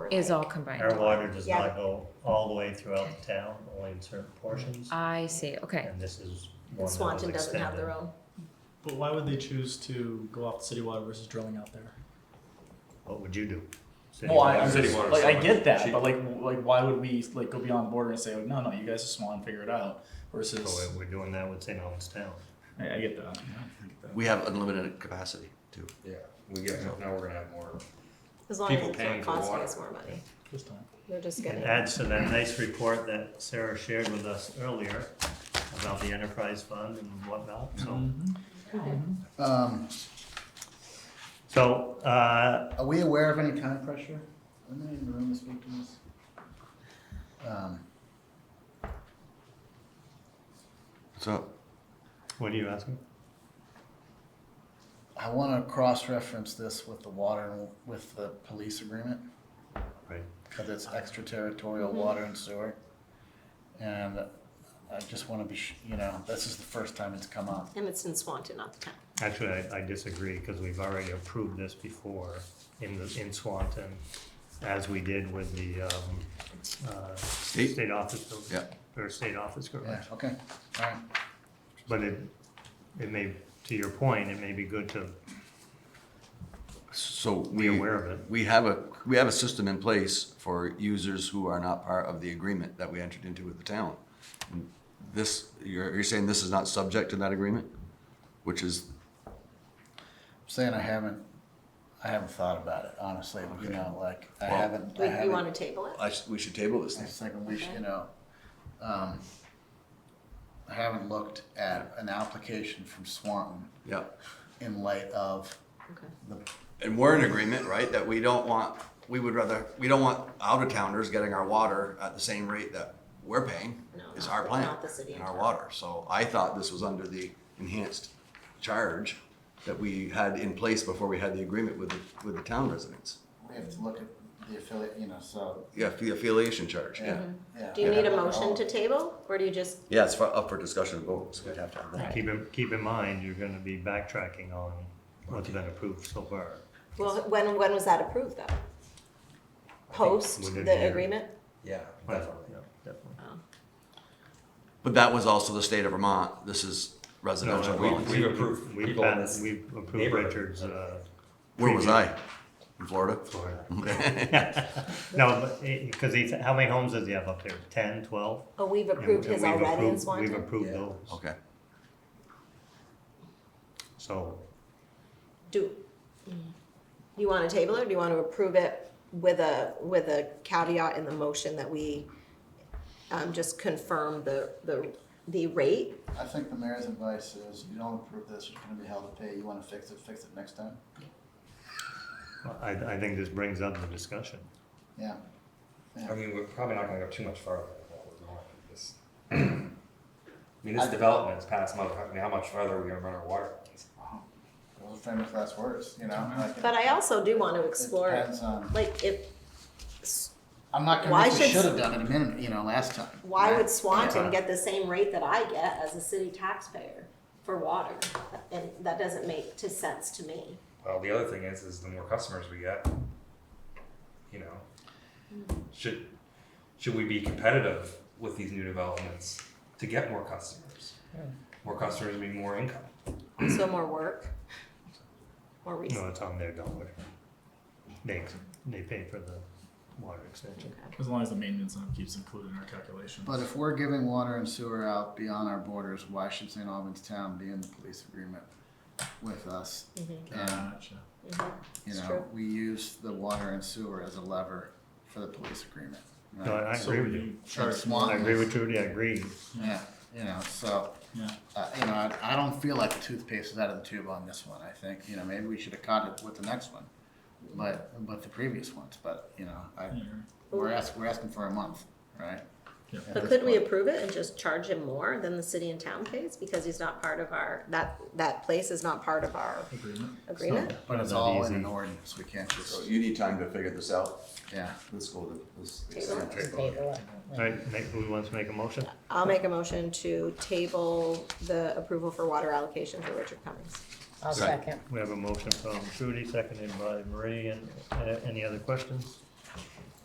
is all combined. Our water does Yeah. not go all the way throughout the town, only in certain portions, I see, okay. and this is one that was extended. Swanton doesn't have their own. But why would they choose to go off the city water versus drilling out there? What would you do? City Well, I, water? I'm City just, water's like, so I much get that, cheaper. but like, w- like, why would we like go beyond the border and say, no, no, you guys are small and figure it out? So Versus, we're doing that with St. Albans Town. I, I get that. yeah, I get that. We have unlimited capacity too. Yeah, we get, now we're gonna have more. As long People as it's paying not for costing water. us more money. This time. We're just It gonna, adds to that nice report that Sarah shared with us earlier about the enterprise fund and whatnot, Mm-hmm. so. Um, So, uh, are we aware of any time pressure? Are there in the room to speak to this? Um, So what are you asking? I want to cross-reference this with the water, and with the police agreement, Right. because it's extraterritorial water and sewer. And I just want to be, sh- you know, this is the first time it's come up. and it's in Swanton, not the town. Actually, I, I disagree, because we've already approved this before in the, in Swanton, as we did with the, um, uh, State? state office building. Yeah. Or state office Yeah, garage, okay, all right. but it, it may, to your point, it may be good to so we be aware of it. we have a we have a system in place for users who are not part of the agreement that we entered into with the town. This you're you're saying this is not subject to that agreement, which is Saying I haven't, I haven't thought about it, honestly, you know, like, I Well- haven't, I We, haven't. you wanna table it? I, s- we should table this. I just think we should, you know, um, I haven't looked at an application from Swanton Yeah, in light of Okay. the, and we're in agreement, right? That we don't want we would rather we don't want out of towners getting our water at the same rate that we're paying No, is not- our plan not the city and and our town. water. So I thought this was under the enhanced charge that we had in place before we had the agreement with the, with the town residents. we have to look at the affiliate, you know, so. Yeah, the affiliation charge, yeah. Mm-hmm. yeah. Do you need a motion to table, or do you just, Yeah, it's for- up for discussion and vote, so we'd have to have that. Keep in, keep in mind, you're gonna be backtracking on what's been approved so far. well, when, when was that approved though? Post within a the year. agreement? Yeah, Yeah, definitely. But that was also the state of Vermont, this is No, residential no, dwellings. we- we've approved we people in passed- this We've approved neighborhood. Richard's, uh, Where was I? In Florida? Florida. Okay. No, but, because he's, how many homes does he have up there? Ten, twelve? Oh, we've And- approved and his we've already in approved- We've Swanton? approved those, Okay. so, Do, you wanna table it, or do you wanna approve it with a, with a caveat in the motion that we, um, just confirm the, the, the rate? I think the mayor's advice is, you don't approve this, you're gonna be held to pay, you wanna fix it, fix it next time, I, I think this brings up the discussion. yeah. I mean, we're probably not gonna go too much farther than what we're going with this. I mean, I- this development's past month, I mean, how much farther are we gonna run our water? lines? Those are famous last words, you know, like, But it I also do wanna explore, depends on, like, if, I'm not Why convinced we should- should have done it a minute, you know, last time. Why right? would Swanton get the same rate that I get as a city taxpayer for water? And that doesn't make to sense to me. Well, the other thing is, is the more customers we get, you know, should, should we be competitive with these new developments to get more customers? More customers mean more income. So more work, more No, research. it's on their dollar. They, they pay for the water extension. As long as the maintenance and upkeep's included in our calculation. But if we're giving water and sewer out beyond our borders, why should St. Albans Town be in the police agreement with us? And, Gotcha. you Mm-hmm. It's know, true. we use the water and sewer as a lever for the police agreement. right? No, I So agree with you. you charge That's more. one. I agree with Trudy, I agree. Yeah, you know, so, Yeah. uh, you know, I, I don't feel like the toothpaste is out of the tube on this one, I think, you know, maybe we should have caught it with the next one. But, but the previous ones, but, you know, I, Mm. Yeah, you're right. we're asking, we're asking for a month, right? Yeah. At But this could we point. approve it and just charge him more than the city and town pays because he's not part of our, that, that place is not part of our Agreement. agreement? But it's Not that all in easy. an ordinance, we can't So just, you need time to figure this out. yeah. Let's go to, let's. Table it. All right, make, who wants to make a motion? I'll make a motion to table the approval for water allocation for Richard Cummings. I'll Second. second. We have a motion from Trudy, seconded by Marie, and uh, any other questions?